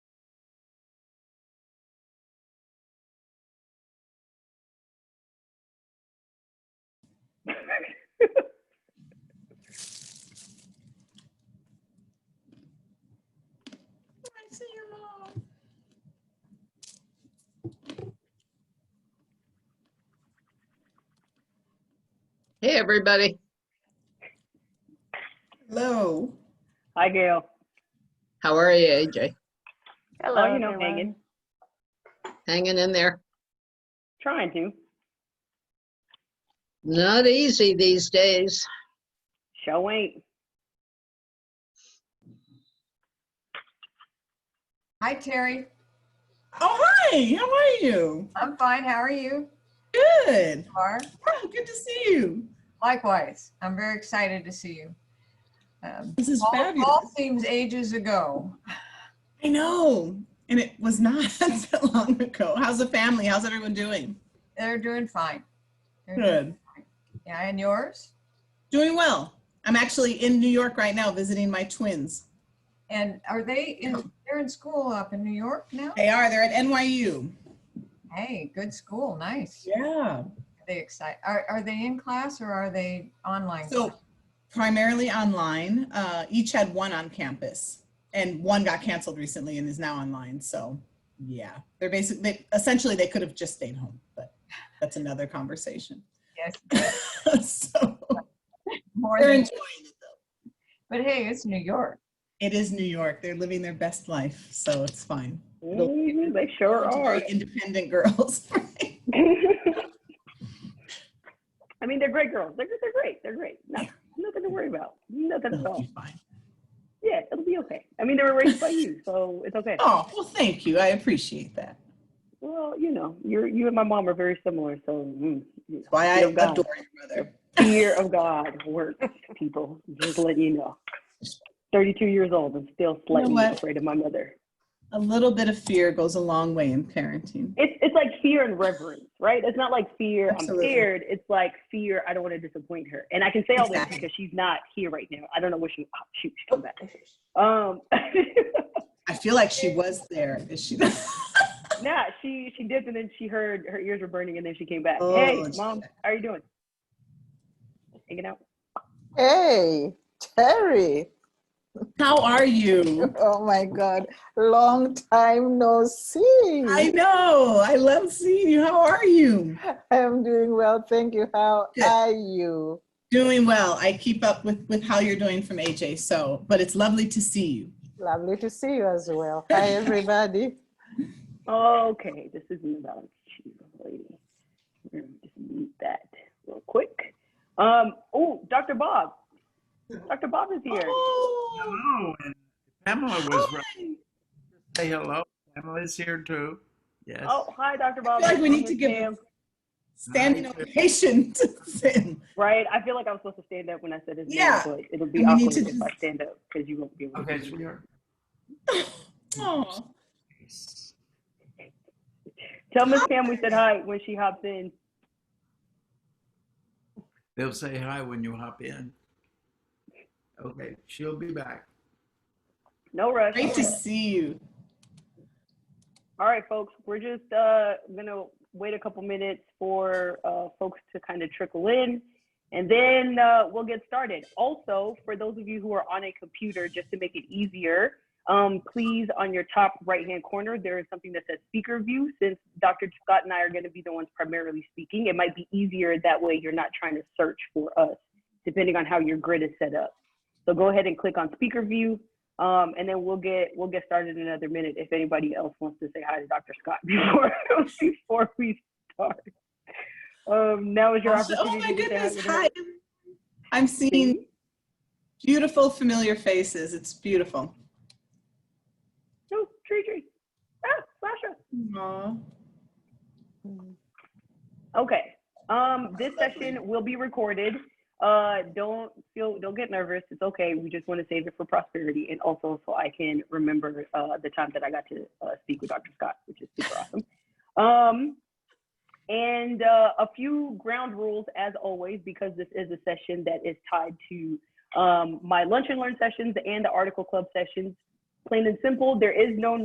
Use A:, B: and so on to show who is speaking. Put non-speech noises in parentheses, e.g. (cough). A: I see you all.
B: Hey, everybody.
C: Hello.
A: Hi, Gail.
B: How are you, AJ?
A: Hello, Oh, you know, hanging,
B: Hanging in there?
A: trying to,
B: Not easy these days.
A: show ain't.
D: Hi, Terry.
C: Oh, hi. How are you?
D: I'm fine. How are you?
C: Good.
D: Are
C: Oh, good to see you.
D: likewise. I'm very excited to see you. Um,
C: This is
D: all, all
C: fabulous.
D: seems ages ago.
C: I know. And it was not (laughs) that long ago. How's the family? How's everyone doing?
D: They're doing fine. They're doing-
C: Good.
D: Yeah, and yours?
C: Doing well. I'm actually in New York right now visiting my twins.
D: And are they in? They're in school up in New York now.
C: They are. They're at NYU.
D: Hey, good school. Nice.
C: Yeah.
D: Are they excited? Are, are they in class or are they online?
C: So
D: class?
C: primarily online. Uh, each had one on campus, and one got canceled recently and is now online. So yeah, they're basically they, essentially they could have just stayed home, but that's another conversation.
D: yes,
C: (laughs) so
D: more
C: they're
D: than.
C: enjoying it.
D: But hey, it's New York.
C: It is New York. They're living their best life, so it's fine.
A: Mhm, They sure are.
C: Very independent (laughs) girls. right?
A: (laughs) I mean, they're great girls. They're, they're great. They're great. No, nothing to worry about. Nothing at
C: They'll (laughs)
A: all.
C: be fine.
A: Yeah, it'll be okay. I mean, they were raised by you, so it's okay.
C: Oh well, thank you. I appreciate that.
A: Well, you know, you're, you and my mom are very similar, so. mm, you know,
C: Why I
A: fear of God.
C: adore your mother.
A: Fear of God works, people. Just letting you know. Thirty-two years old and still slightly
C: what?
A: afraid of my mother.
C: A little bit of fear goes a long way in parenting.
A: It's it's like fear and reverence, right? It's not like fear.
C: Absolutely.
A: I'm scared. It's like fear. I don't want to disappoint her, and I can say all
C: Exactly.
A: this because she's not here right now. I don't know where she. Oh, shoot, she come back.
C: Oh,
A: Um, (laughs)
C: I feel like she was there. Is she? (laughs)
A: nah, she she dipped and then she heard her ears were burning and then she came back.
C: Oh,
A: hey,
C: it's-
A: mom, how are you doing? Hanging out.
E: Hey, Terry.
C: How are you?
E: Oh my God. Long time no see.
C: I know. I love seeing you. How are you?
E: am doing well. Thank you. How
C: Good.
E: are you?
C: Doing well. I keep up with with how you're doing from AJ. So, but it's lovely to see you.
E: Lovely to see you as well. Hi, everybody.
A: Okay, this isn't about you, lady. We're gonna just mute that real quick. Um, oh, Dr. Bob. Dr. Bob is here.
C: Oh,
F: Hello, and Pamela was right. Say hello. Pamela's here too. Yes.
A: Oh, hi, Dr. Bob.
C: I feel like we
A: Nice
C: need
A: to
C: to give-
A: meet you.
C: standing ovation (laughs) to Sam.
A: Right, I feel like I'm supposed to stand up when I said his
C: Yeah.
A: name, but it'll be
C: And we need
A: awkward
C: to
A: if I
C: just-
A: stand up because you won't be able to.
F: Okay, so you're.
C: Oh,
A: Tell Miss Pam we said hi when she hops in.
F: They'll say hi when you hop in. Okay, she'll be back.
A: No rush.
C: great to see you.
A: All right, folks, we're just uh, gonna wait a couple minutes for uh, folks to kind of trickle in, and then uh, we'll get started. Also, for those of you who are on a computer, just to make it easier, um, please on your top right-hand corner there is something that says speaker view. Since Dr. Scott and I are going to be the ones primarily speaking, it might be easier that way. You're not trying to search for us, depending on how your grid is set up. So go ahead and click on speaker view. Um, and then we'll get we'll get started in another minute if anybody else wants to say hi to Dr. Scott (laughs) before before we start. Um, now is your opportunity.
C: Oh my
A: to say
C: goodness!
A: to her.
C: Hi. I'm seeing beautiful, familiar faces. It's beautiful.
A: Oh, tree tree. Ah, Sasha.
C: Aw.
A: Okay. Um, this session will be recorded. Uh, don't feel, don't get nervous. It's okay. We just want to save it for prosperity and also so I can remember uh, the time that I got to uh, speak with Dr. Scott, which is super awesome. Um, and uh, a few ground rules as always, because this is a session that is tied to um, my lunch and learn sessions and the article club sessions. Plain and simple, there is no